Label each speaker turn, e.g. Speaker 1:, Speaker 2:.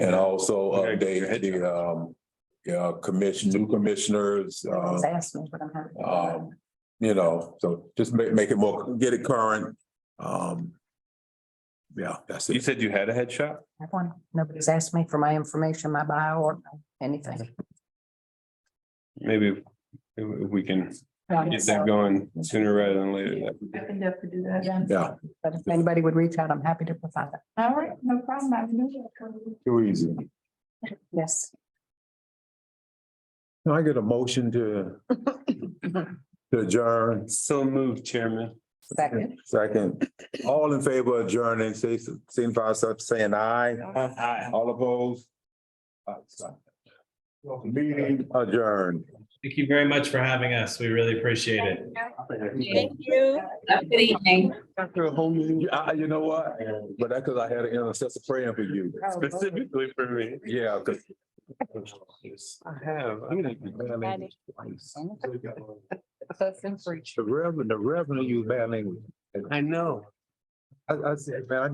Speaker 1: And also
Speaker 2: Okay, your
Speaker 1: update
Speaker 2: head
Speaker 1: the, um, yeah, commission, new commissioners, um,
Speaker 3: Just ask me what I'm having.
Speaker 1: um, you know, so just make, make it more, get it current. Um, yeah, that's
Speaker 2: You
Speaker 1: it.
Speaker 2: said you had a head shop?
Speaker 3: I want, nobody's asked me for my information, my bio or anything.
Speaker 2: Maybe if- if we can get that
Speaker 3: Yeah,
Speaker 2: going sooner rather than later. that would be-
Speaker 4: I can definitely do that.
Speaker 1: Yeah,
Speaker 3: But if anybody would reach out, I'm happy to provide that.
Speaker 4: All right, no problem. I knew that.
Speaker 1: too easy.
Speaker 3: Yes.
Speaker 1: Can I get a motion to to adjourn?
Speaker 2: So moved, Chairman.
Speaker 3: Second.
Speaker 1: Second, all in favor of adjourning, say, signify by saying aye. All opposed? Uh, so- Meeting adjourned.
Speaker 5: Thank you very much for having us. We really appreciate it.
Speaker 6: Thank you.
Speaker 4: Good evening.
Speaker 1: Uh, you know what? But that's because I had an intercessor praying for you.
Speaker 2: Specifically for me.
Speaker 1: Yeah, because
Speaker 2: I have. I'm gonna.
Speaker 1: the revenue, the revenue you managing.
Speaker 2: I know.
Speaker 1: I, I said, man, I